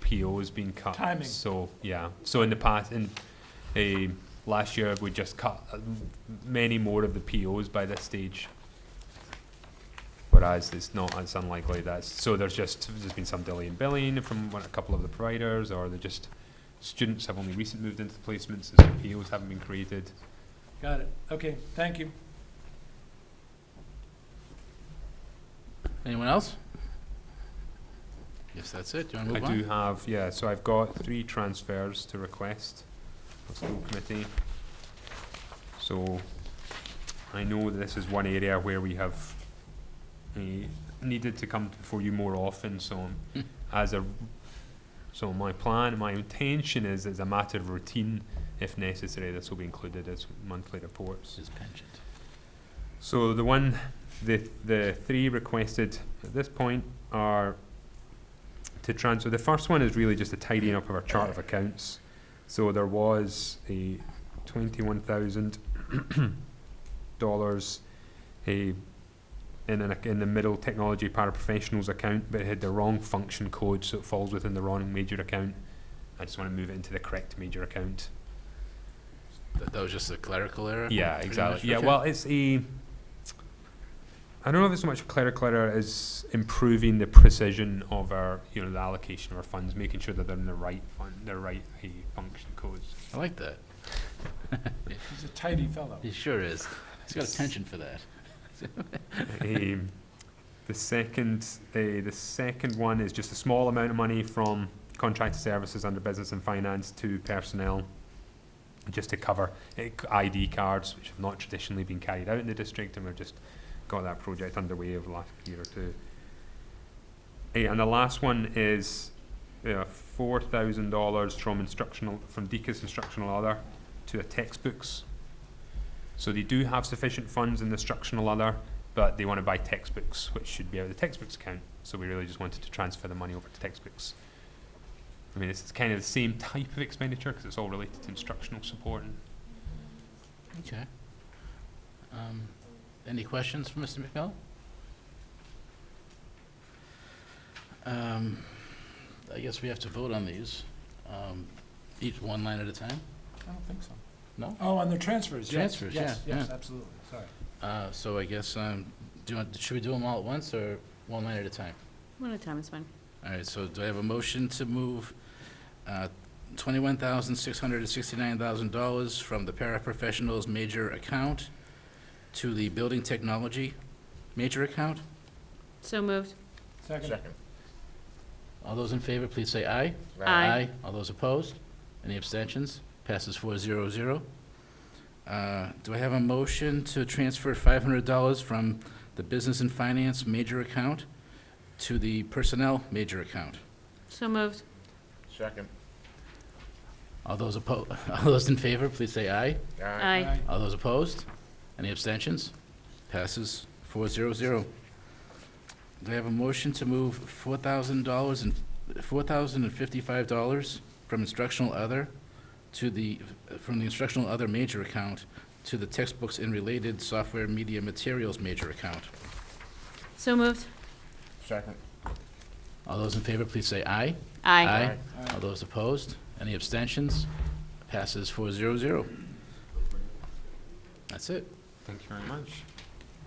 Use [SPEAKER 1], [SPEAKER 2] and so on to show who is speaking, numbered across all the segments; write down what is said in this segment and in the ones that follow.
[SPEAKER 1] PO is being cut.
[SPEAKER 2] Timing.
[SPEAKER 1] So, yeah, so in the past, in, eh, last year, we just cut uh, many more of the POs by this stage. Whereas it's not, it's unlikely that's, so there's just, there's been some delay in billing from one- a couple of the providers, or they're just, students have only recently moved into placements, so POs haven't been created.
[SPEAKER 2] Got it. Okay, thank you.
[SPEAKER 3] Anyone else? Yes, that's it. Do you want
[SPEAKER 1] I
[SPEAKER 3] to move on?
[SPEAKER 1] do have, yeah, so I've got three transfers to request for school committee. So, I know that this is one area where we have eh, needed to come before you more often, so
[SPEAKER 3] Hmm.
[SPEAKER 1] as a, so my plan, my intention is, as a matter of routine, if necessary, this will be included as monthly reports.
[SPEAKER 3] This is penchant.
[SPEAKER 1] So the one, the, the three requested at this point are to transfer, the first one is really just a tidying up of our chart of accounts. So there was a twenty-one thousand dollars, a, in an, ac- in the middle technology paraprofessionals account, but it had the wrong function code, so it falls within the wrong major account. I just wanna move it into the correct major account.
[SPEAKER 3] That, that was just a clerical error?
[SPEAKER 1] Yeah,
[SPEAKER 3] Pretty much,
[SPEAKER 1] exactly. Yeah,
[SPEAKER 3] okay.
[SPEAKER 1] well, it's a. I don't know if it's so much clerical error as improving the precision of our, you know, the allocation of our funds, making sure that they're in the right fund, the right uh, function codes.
[SPEAKER 3] I like that.
[SPEAKER 2] He's a tidy fellow.
[SPEAKER 3] He sure is. He's got a penchant for that.
[SPEAKER 1] um, the second, uh, the second one is just a small amount of money from contracted services under business and finance to personnel, just to cover uh, c- ID cards, which have not traditionally been carried out in the district, and we've just got that project underway over the last year or two. Uh, and the last one is uh, four thousand dollars from instructional from Deacon's instructional other to a textbooks. So they do have sufficient funds in the instructional other but they want to buy textbooks, which should be out of the textbooks account. So we really just wanted to transfer the money over to textbooks. I mean, it's kind of the same type of expenditure because it's all related to instructional support. And
[SPEAKER 3] Okay. Um, Any questions for Mr. McMillan? Um, I guess we have to vote on these, um, each one line at a time.
[SPEAKER 2] I don't think so.
[SPEAKER 3] No?
[SPEAKER 2] Oh, on the transfers, yes.
[SPEAKER 3] Transfers,
[SPEAKER 2] yes,
[SPEAKER 3] yeah,
[SPEAKER 2] Yes,
[SPEAKER 3] yeah.
[SPEAKER 2] absolutely, sorry.
[SPEAKER 3] Uh, So I guess, um, do you want, should we do them all at once or one line at a time?
[SPEAKER 4] One at a time is fine.
[SPEAKER 3] All right, so do I have a motion to move uh, $21,669,000 from the paraprofessionals major account to the building technology major account?
[SPEAKER 4] So moved.
[SPEAKER 2] Second,
[SPEAKER 3] All those in favor, please say aye.
[SPEAKER 4] Aye.
[SPEAKER 3] All those opposed? Any abstentions? Passes four zero zero. Uh, Do I have a motion to transfer five hundred dollars from the business and finance major account to the personnel major account?
[SPEAKER 4] So moved.
[SPEAKER 5] Second.
[SPEAKER 3] All those oppo, all those in favor, please say aye.
[SPEAKER 4] Aye.
[SPEAKER 2] Aye.
[SPEAKER 3] All those opposed? Any abstentions? Passes four zero zero. Do I have a motion to move four thousand dollars and, four thousand and fifty-five dollars from instructional other to the, from the instructional other major account to the textbooks and related software media materials major account?
[SPEAKER 4] So moved.
[SPEAKER 5] Second.
[SPEAKER 3] All those in favor, please say aye.
[SPEAKER 4] Aye.
[SPEAKER 2] Aye.
[SPEAKER 3] All those opposed? Any abstentions? Passes four zero zero. That's it.
[SPEAKER 1] thank you very much.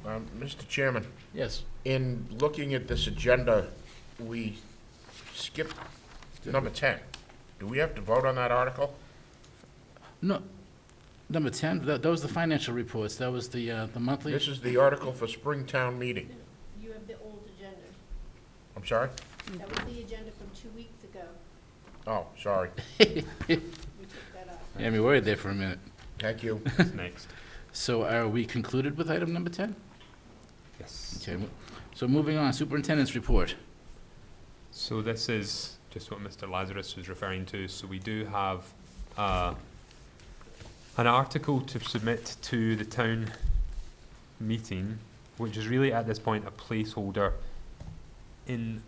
[SPEAKER 5] Um, Mr. Chairman,
[SPEAKER 3] Yes.
[SPEAKER 5] in looking at this agenda, we skipped number 10. Do we have to vote on that article?
[SPEAKER 3] No, number 10, that that was the financial reports, that was the, uh, the monthly,
[SPEAKER 5] This is the article for Springtown meeting.
[SPEAKER 6] You have the old agenda.
[SPEAKER 5] I'm sorry?
[SPEAKER 6] That was the agenda from two weeks ago.
[SPEAKER 5] Oh, sorry.
[SPEAKER 6] We took that off.
[SPEAKER 3] yeah, we were there for a minute.
[SPEAKER 5] Thank you.
[SPEAKER 1] What's next?
[SPEAKER 3] So are we concluded with item number 10?
[SPEAKER 1] Yes.
[SPEAKER 3] Okay, mo- so moving on, superintendent's report.
[SPEAKER 1] So this is just what Mr. Lazarus was referring to. So we do have uh, an article to submit to the town meeting, which is really at this point a placeholder in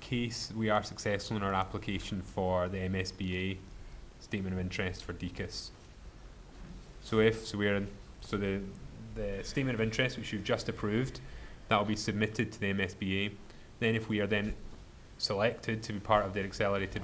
[SPEAKER 1] case we are successful in our application for the MSBA statement of interest for DECIS. So if so, we're in, so the the statement of interest which you've just approved, that will be submitted to the MSBA. Then, if we are then selected to be part of their accelerated